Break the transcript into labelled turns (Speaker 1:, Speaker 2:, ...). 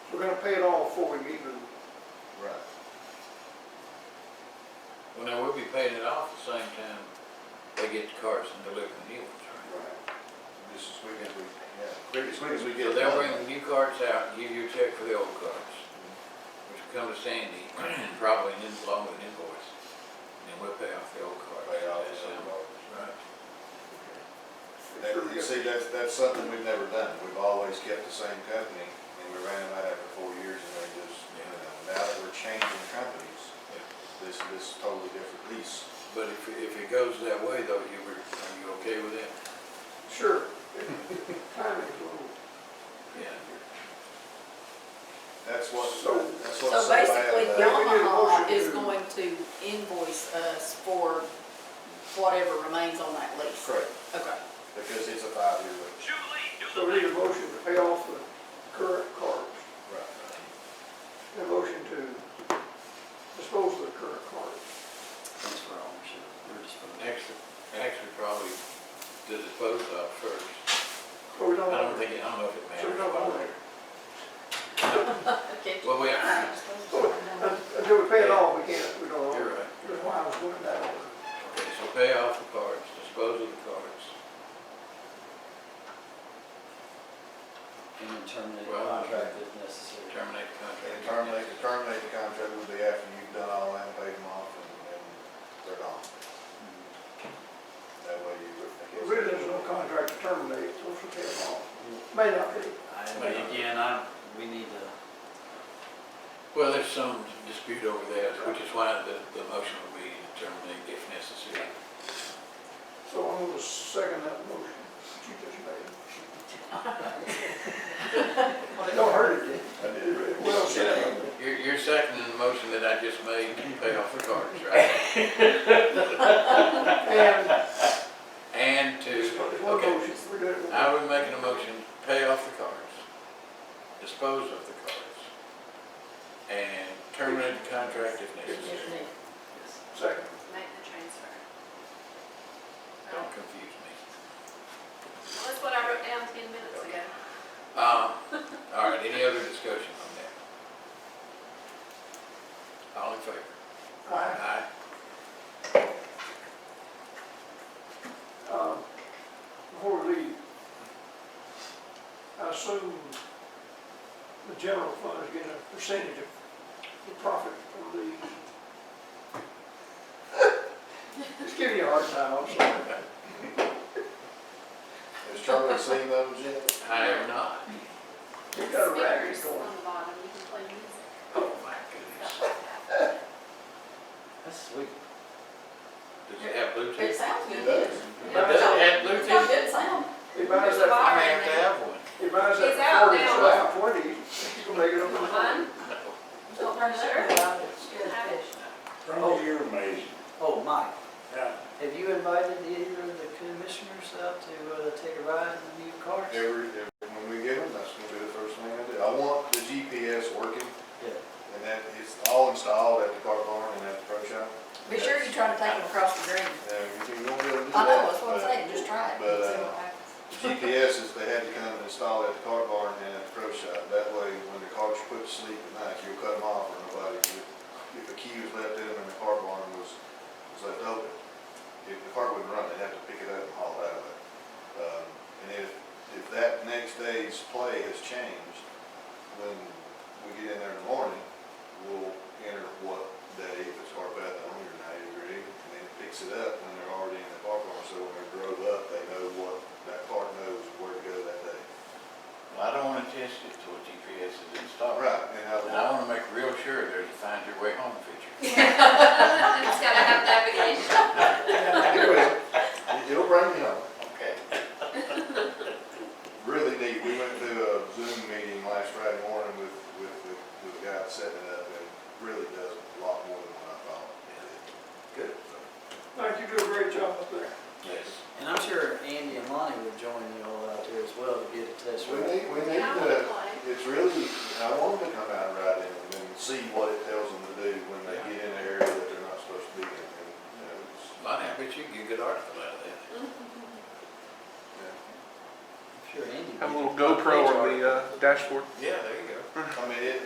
Speaker 1: we're gonna pay it all before we even,
Speaker 2: Right.
Speaker 3: Well, now, we'll be paying it off the same time they get the cars and deliver the new ones,
Speaker 1: uh,
Speaker 3: right?
Speaker 2: Just as quick as we, yeah, quick as quick as we
Speaker 3: So
Speaker 2: get. it
Speaker 3: they'll
Speaker 2: done.
Speaker 3: bring the new carts out and give you a check for the old carts, which will come to Sandy, and probably an in- along with an invoice. And then we'll pay off the old carts.
Speaker 2: Pay off
Speaker 3: That's
Speaker 2: the
Speaker 3: how-
Speaker 2: old
Speaker 3: Right.
Speaker 2: That, you see, that's, that's something we've never done. We've always kept the same company and we ran them out after four years and they just, you know, now that we're changing companies, this, this totally different lease.
Speaker 3: But if, if it goes that way though, you were, are you okay with it?
Speaker 1: sure. Timing's a little-
Speaker 3: Yeah.
Speaker 2: That's what,
Speaker 1: So-
Speaker 2: that's what's
Speaker 4: So
Speaker 2: so bad
Speaker 4: basically
Speaker 2: about it.
Speaker 4: Yamaha is
Speaker 1: They did a motion to-
Speaker 4: going to invoice us for whatever remains on that lease.
Speaker 2: Correct,
Speaker 4: Okay.
Speaker 2: because it's a five-year lease.
Speaker 5: Julie, do
Speaker 1: So
Speaker 5: the
Speaker 1: we need a
Speaker 5: math.
Speaker 1: motion to pay off the current cars,
Speaker 2: Right.
Speaker 1: a motion to dispose of the current cars.
Speaker 6: transfer ownership, or disposal.
Speaker 3: Actually, actually probably the disposal of first.
Speaker 1: So we
Speaker 3: I
Speaker 1: don't.
Speaker 3: don't think, I don't know if it
Speaker 1: So we don't own it.
Speaker 3: matters. Well, we, you're
Speaker 1: So, un- Until we pay it off, we can't, we don't own it.
Speaker 3: right.
Speaker 1: That's why I was looking that over.
Speaker 3: Okay, so pay off the cards, dispose of the cards.
Speaker 6: And then terminate the
Speaker 3: Well,
Speaker 6: contract if necessary.
Speaker 3: Terminate the contract.
Speaker 2: And terminate, to terminate the contract would be after you've done all that, paid them off and, and they're gone.
Speaker 6: Mm.
Speaker 2: That way you would. I guess-
Speaker 1: Mm-hmm. Really, there's no contract to terminate, so we should pay it off.
Speaker 3: Mm.
Speaker 1: May not be.
Speaker 6: I, but again, I, we need to,
Speaker 3: Well, there's some dispute over that, which is why the, the motion will be to terminate if necessary.
Speaker 1: So I'm gonna second that motion that you just made. Well, it don't hurt it,
Speaker 2: I
Speaker 1: did
Speaker 2: did.
Speaker 1: it? It Well, said.
Speaker 3: You're, you're seconding the motion that I just made to pay off the cards, right?
Speaker 1: And,
Speaker 3: And to,
Speaker 1: just put it in one
Speaker 3: okay,
Speaker 1: motion, we're doing it.
Speaker 3: I would make a motion, to pay off the cards, dispose of the cards, and terminate the contract if necessary.
Speaker 1: Second.
Speaker 7: Make the transfer.
Speaker 3: Don't confuse me.
Speaker 7: Well, that's what I wrote down ten minutes ago.
Speaker 3: Um, all right, any other discussion on that? All in favor?
Speaker 1: Aye.
Speaker 3: Aye.
Speaker 1: Um, Before we leave, I assume the general fund is getting a percentage of the profit from these. Just giving you a hard time, I'm sorry.
Speaker 2: Has Charlie seen those yet?
Speaker 3: I have not.
Speaker 1: You got a racket
Speaker 7: Speakers
Speaker 1: going.
Speaker 7: On the bottom, you can play music.
Speaker 3: Oh, my goodness.
Speaker 6: that's sweet.
Speaker 3: Does it have
Speaker 4: It
Speaker 3: Bluetooth?
Speaker 4: sounds
Speaker 2: It
Speaker 4: good.
Speaker 2: does.
Speaker 3: Does it have
Speaker 4: It's got
Speaker 3: Bluetooth?
Speaker 4: good sound.
Speaker 1: He buys
Speaker 7: There's a
Speaker 1: that,
Speaker 7: box.
Speaker 3: I may have to have one.
Speaker 1: he buys
Speaker 7: He's out
Speaker 1: that forty,
Speaker 7: now.
Speaker 1: so forty, he's gonna make it up.
Speaker 7: One,
Speaker 4: Don't turn it up.
Speaker 7: have it.
Speaker 6: Oh.
Speaker 8: you're amazing.
Speaker 6: Oh, Mike,
Speaker 8: Yeah.
Speaker 6: have you invited either of the commissioners out to, uh, take a ride in the new cars?
Speaker 2: Every, every- when we get them, that's gonna be the first thing I do. I want the GPS working
Speaker 6: Yeah.
Speaker 2: and that it's all installed at the car barn and at the pro shop.
Speaker 4: Be sure you try to take it across the green.
Speaker 2: Now, you can, you won't be able to do
Speaker 4: I know,
Speaker 2: that,
Speaker 4: that's what I'm
Speaker 2: but
Speaker 4: saying, just try it.
Speaker 2: but,
Speaker 4: and see
Speaker 2: uh,
Speaker 4: what happens.
Speaker 2: GPS is they had to come and install at the car barn and at the pro shop. That way, when the cars put to sleep at night, you'll cut them off or nobody, would- if the key was left in and the car barn was, was left open, if the car wouldn't run, they'd have to pick it up and haul it out of it. Um, And if, if that next day's play has changed, when we get in there in the morning, we'll enter what day, if it's hard bad, on or ninety degree, and then it picks it up when they're already in the park car, so when they drove up, they know what, that car knows where to go that day.
Speaker 3: I don't want to test it till GPS is
Speaker 2: All
Speaker 3: installed.
Speaker 2: right, and I,
Speaker 3: And I want to make real sure there's a find your way home feature.
Speaker 7: It's gotta have navigation.
Speaker 2: it will, It- it'll bring me home.
Speaker 3: Okay.
Speaker 2: Really neat, we went to a Zoom meeting last Friday morning with, with, the- with the guy setting it up, and it really does a lot more than what I thought. Good.
Speaker 1: Mike, you do a great job up there.
Speaker 3: Yes.
Speaker 6: And I'm sure Andy and Lonnie would join you all out there as well to get a test
Speaker 2: We
Speaker 6: ride.
Speaker 2: need, we need
Speaker 7: Yeah, I wanna
Speaker 2: to,
Speaker 7: play.
Speaker 2: it's really, I want them to come out and ride in them and see what it tells them to do when they get in an area that they're not supposed to be in. And, you know, it's,
Speaker 3: Lonnie, I bet you can get a good article out of that.
Speaker 2: you know,
Speaker 6: I'm sure Andy.
Speaker 9: Have a
Speaker 6: would.
Speaker 9: little GoPro on the uh, dashboard.
Speaker 3: Yeah, there you